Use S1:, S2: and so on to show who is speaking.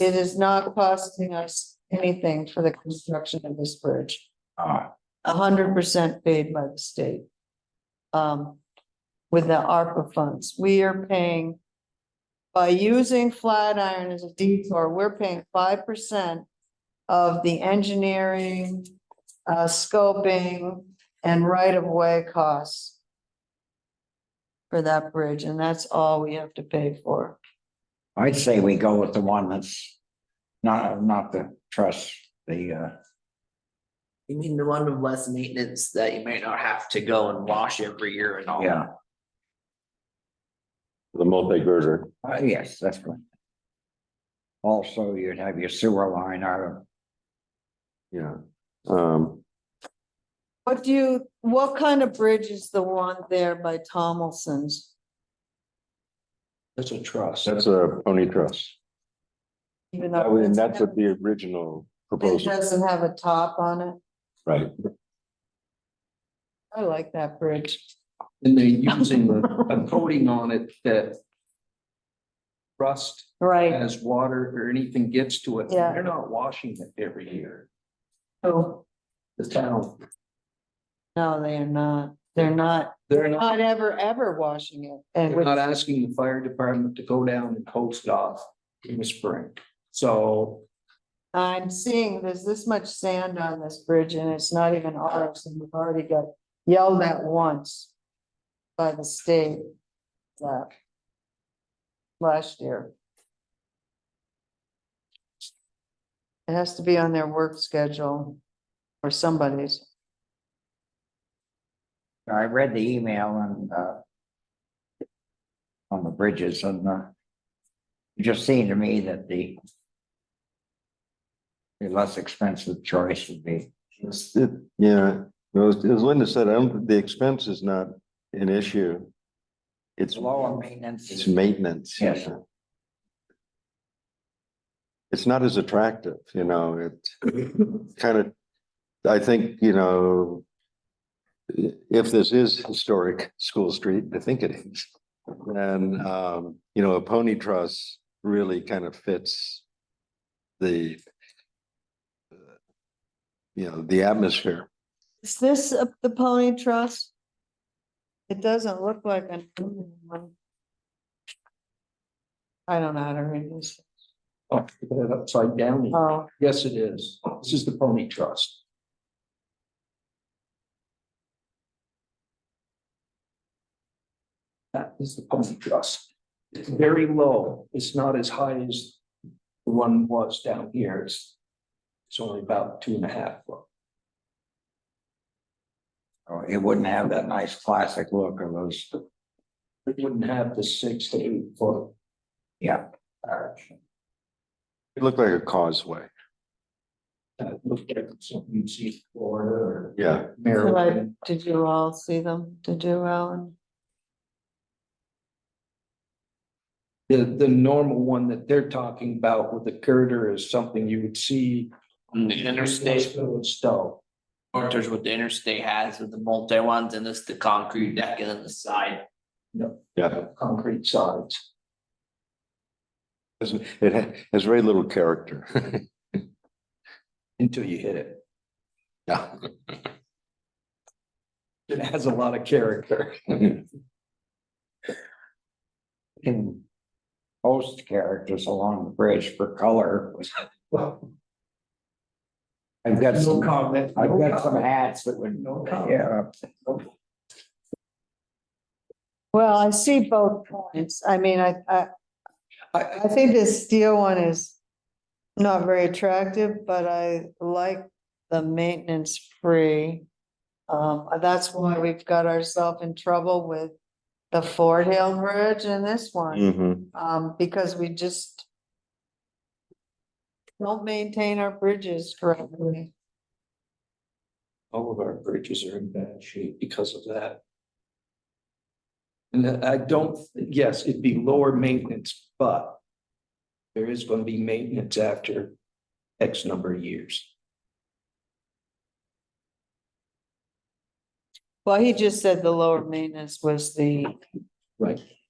S1: It is not costing us anything for the construction of this bridge.
S2: Ah,
S1: A hundred percent paid by the state. Um, with the ARPA funds, we are paying. By using Flatiron as a detour, we're paying five percent of the engineering, uh, scoping and right-of-way costs. For that bridge, and that's all we have to pay for.
S2: I'd say we go with the one that's not, not the trust, the, uh,
S3: You mean the one with less maintenance that you may not have to go and wash every year and all?
S2: yeah,
S4: The multi-girder.
S2: uh, yes, that's good. Also, you'd have your sewer line out of,
S4: Yeah. Um,
S1: What do you, what kind of bridge is the one there by Tomlinson's?
S3: That's a trust.
S4: that's a pony truss.
S1: Even
S4: That
S1: though
S4: was- And
S1: it's-
S4: that's what the
S1: Uh,
S4: original
S1: It
S4: proposal,
S1: doesn't have a top on it.
S4: right?
S1: I like that bridge.
S5: And they're using a coating on it that rust
S1: Right.
S5: as water or anything gets to it.
S1: Yeah.
S5: They're not washing it every year.
S1: Oh,
S5: The town,
S1: no, they are not. They're not,
S5: they're not,
S1: not ever, ever washing it. And
S5: they're
S1: Uh, with,
S5: not asking the fire department to go down and coast off in the spring. So
S1: I'm seeing there's this much sand on this bridge and it's not even ours and we've already got yelled at once by the state uh, last year. It has to be on their work schedule or somebody's.
S2: I read the email and, uh, on the bridges and, uh, it just seemed to me that the the less expensive choice would be
S4: It's- it- Yeah, no, as as Linda said, I don't, the expense is not an issue. It's,
S2: lower
S4: it's
S2: maintenance.
S4: maintenance.
S2: Yes.
S4: It's not as attractive, you know, it kind of, I think, you know, i- if this is historic School Street, I think it is, then, um, you know, a pony truss really kind of fits the you know, the atmosphere.
S1: Is this a- the pony truss? It doesn't look like an. aluminum one. I don't know how to read this.
S5: I'll oh, put it upside down.
S1: Oh,
S5: Yes, it is. This is the pony trust. That is the pony trust. It's very low. It's not as high as the one was down here. It's, it's only about two and a half foot.
S2: Or it wouldn't have that nice classic look of those,
S5: It wouldn't have the six to eight foot.
S2: yeah.
S4: It looked like a causeway.
S5: that looked like something you'd see in Florida or
S4: Yeah.
S1: did
S5: Maryland.
S1: I- did you all see them? Did you, Alan?
S5: The, the normal one that they're talking about with the girder is something you would see.
S3: On the interstate,
S5: in Stowe.
S3: or there's what the interstate has with the multi ones and this the concrete deck and then the side.
S4: Yeah,
S5: concrete sides.
S4: Doesn't- it ha- has very little character.
S5: Until you hit it.
S4: Yeah.
S5: It has a lot of character.
S2: Can host characters along the bridge for color.
S5: Well,
S2: I've got
S5: no
S2: some,
S5: comment.
S2: I've
S5: no
S2: got some
S5: comment,
S2: hats that would,
S5: No comment.
S2: yeah,
S1: Well, I see both points. I mean, I, I, I think this steel one is not very attractive, but I like the maintenance free. Um, that's why we've got ourselves in trouble with the Ford Hill Bridge and this one.
S4: Mhm.
S1: um, because we just don't maintain our bridges correctly.
S5: All of our bridges are in bad shape because of that. And I don't, yes, it'd be lower maintenance, but there is gonna be maintenance after X number of years.
S1: Well, he just said the lower maintenance was the
S5: Right.